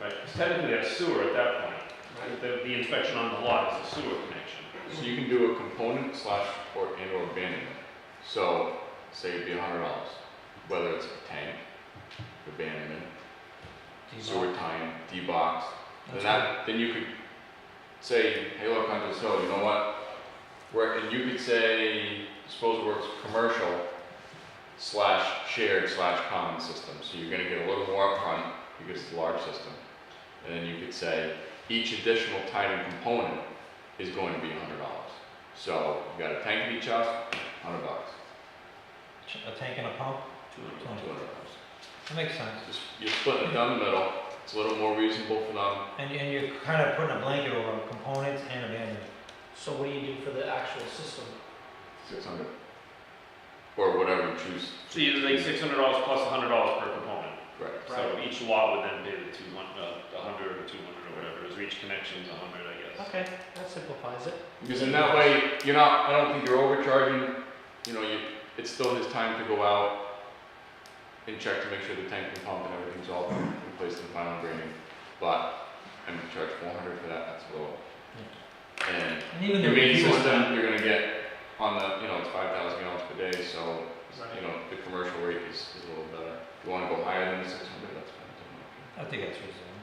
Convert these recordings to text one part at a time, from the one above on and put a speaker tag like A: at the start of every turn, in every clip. A: Right, 'cause technically that's sewer at that point. The, the inspection on the lot is a sewer connection.
B: So you can do a component slash or and or abandonment. So say it'd be a hundred dollars, whether it's a tank, abandonment, sewer tie-in, D-box. Then
C: That's
B: that, then you could say, hey, look, Hunter's Hill, you know what? Where, and you could say disposal works commercial slash shared slash common system. So you're gonna get a little more upfront because it's a large system. And then you could say each additional tied-in component is going to be hundred dollars. So you got a tank in each house, hundred bucks,
C: A tank and uh, a pump,
B: two hundred dollars.
C: that makes sense.
B: Just, you're splitting it down the middle, it's a little more reasonable for them.
C: And, and you're kind of putting a blanket over components and abandonment.
D: So what do you do for the actual system?
B: Six hundred. Or whatever you choose,
A: So you like six hundred dollars plus a hundred dollars per component.
B: correct.
A: So each lot would then pay the two one, uh, a hundred or two hundred or whatever, it is. each connection's a hundred, I guess.
D: Okay, that simplifies it.
B: Because in that way, you're not, I don't think you're overcharging, you know, you, it's still his time to go out and check to make sure the tank and pump and everything's all replaced and final grading, but I'm gonna charge four hundred for that, that's low. And
C: And even the
B: your main
C: review on
B: system,
C: that,
B: you're gonna get on the, you know, it's five thousand gallons per day, so, you know, the commercial rate is, is a little better. If you wanna go higher than the six hundred, that's fine. too.
C: I think that's reasonable.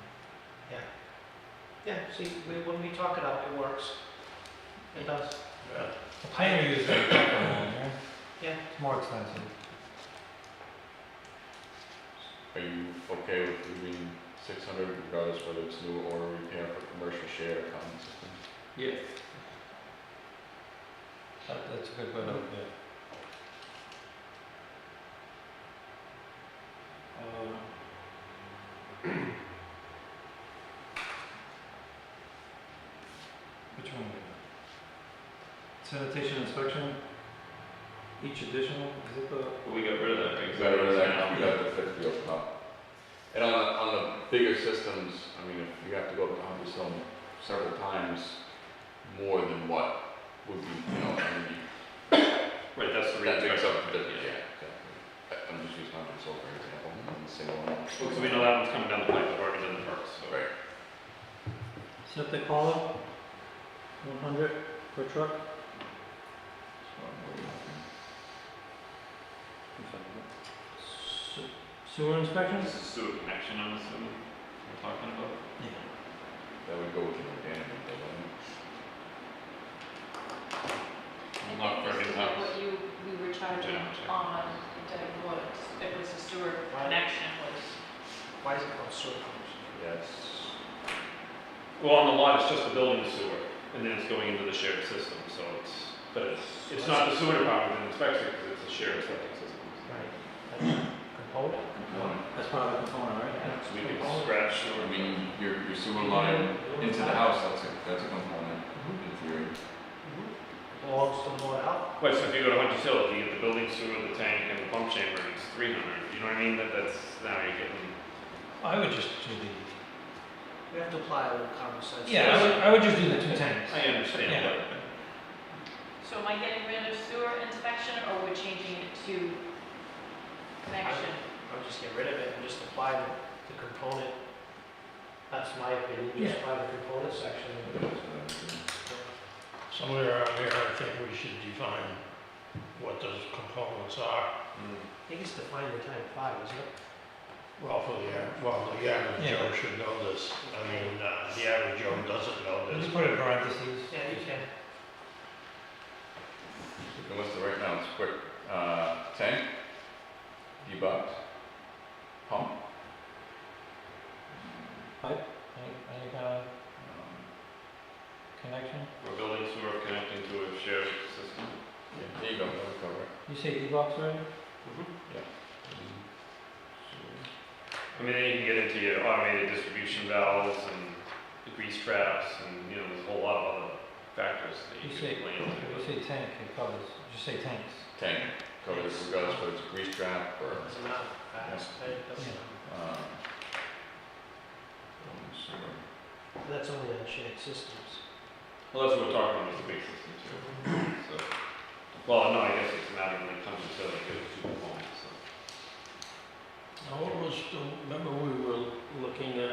D: Yeah, see, we, when we talk it up, it works. It does.
C: The Pioneer is very popular, yeah?
D: Yeah.
C: It's more expensive.
B: Are you okay with leaving six hundred regardless whether it's new or repair for commercial share or common system?
A: Yeah.
C: That, that's a good way to, yeah. Um, Which one? we got? Sanitation inspection, each additional, is it the?
A: But we got rid of that, right? 'Cause
B: Better than that,
A: now-
B: you got the fifty open up. And on the, on the bigger systems, I mean, if you have to go up to hundred some several times more than what would be, you know, I mean,
A: Right, that's the
B: that
A: reason.
B: takes up the,
A: Yeah.
B: yeah, exactly. I- I'm just using hundred so for example, and the single one.
A: Well, 'cause we know that one's coming down the pipe, we've already done the perks, so.
B: Right.
C: Septic column,
D: One hundred per truck?
C: sewer inspections?
A: This is sewer connection, I'm assuming, we're talking about.
C: Yeah.
B: That would go with an abandonment, though, wouldn't
A: Well,
B: it?
A: not for
E: This
A: his
E: is
A: house.
E: What you, we were charging
A: Yeah, check.
E: on the woods, it was a sewer connection was,
D: Why is it called sewer connection?
B: Yes.
A: Well, on the lot, it's just the building sewer, and then it's going into the shared system, so it's, but it's, it's not the sewer department that inspects it, because it's a shared septic system.
D: Right. Component?
C: That's part of the component, right?
A: So we could scratch sewer.
B: I mean, your, your sewer line into the house, that's a, that's a component in theory.
D: Belongs to the board out?
A: Wait, so if you go to Hunter's Hill, if you get the building sewer, the tank, and the pump chamber, it's three hundred, you know what I mean, that, that's, now you're getting.
C: I would just do the,
D: We have to apply a little common sense.
C: yeah, I would, I would just do the two tanks.
A: I understand,
C: Yeah.
A: but.
E: so am I getting rid of sewer inspection or we're changing it to connection?
D: I would just get rid of it and just apply the, the component. That's my opinion, just apply the component section.
B: Mm-hmm.
F: Somewhere around here, I think we should define what those components are,
D: I think it's defined in time five, isn't it?
F: well, for the, a- well, the average
C: Yeah.
F: Joe should know this, I mean, uh, the average Joe doesn't know this.
C: Just put it in parentheses.
D: Yeah, you can.
B: And what's the right now, it's quick, uh, tank, debox, pump,
C: Any, any kind of
B: um,
C: connection?
A: We're building sewer connecting to a shared system.
B: yeah, there you go, that'll cover it.
C: You say E-box already?
A: Mm-hmm. I mean, then you can get into your automated distribution valves and the grease traps, and, you know, there's a whole lot of other factors that
C: You
A: you
C: say,
A: can play into.
C: you say tank, it covers, just say tanks.
B: Tank, covers regardless whether it's a grease trap or,
D: Doesn't matter. Facts, it doesn't
C: Yeah.
D: matter.
B: um, sewer.
D: That's only on shared systems.
A: Well, that's what we're talking about, is the big system too, so. Well, no, I guess it's a matter when it comes to selling, because it's too long, so.
F: Now, what was, the- remember we were looking at